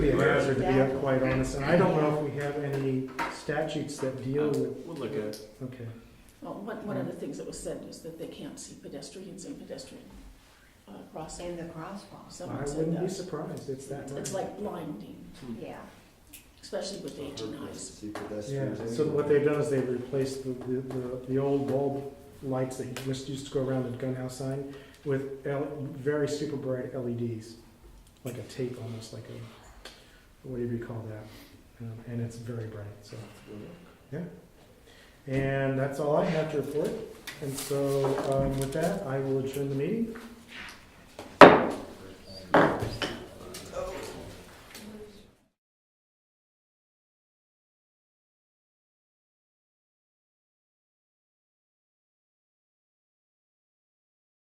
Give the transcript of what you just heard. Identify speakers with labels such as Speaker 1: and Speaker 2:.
Speaker 1: be a hazard, to be quite honest, and I don't know if we have any statutes that deal with,
Speaker 2: We'll look at it.
Speaker 1: okay.
Speaker 3: Well, one, one of the things that was said is that they can't see pedestrians in pedestrian uh, crossing.
Speaker 4: In the crosswalks,
Speaker 3: Someone
Speaker 1: I
Speaker 3: said
Speaker 1: wouldn't be
Speaker 3: that.
Speaker 1: surprised, it's that
Speaker 3: It's
Speaker 1: much.
Speaker 3: like blinding,
Speaker 4: yeah.
Speaker 3: especially with the eighteen eyes.
Speaker 1: Yeah, so what they've done is they've replaced the, the, the- the old bulb lights that used used to go around the gunhouse sign with L, very super bright LEDs, like a tape, almost like a, whatever you call that, Um, and it's very bright, so. And that's all I have to report, and so, um, with that, I will adjourn the meeting.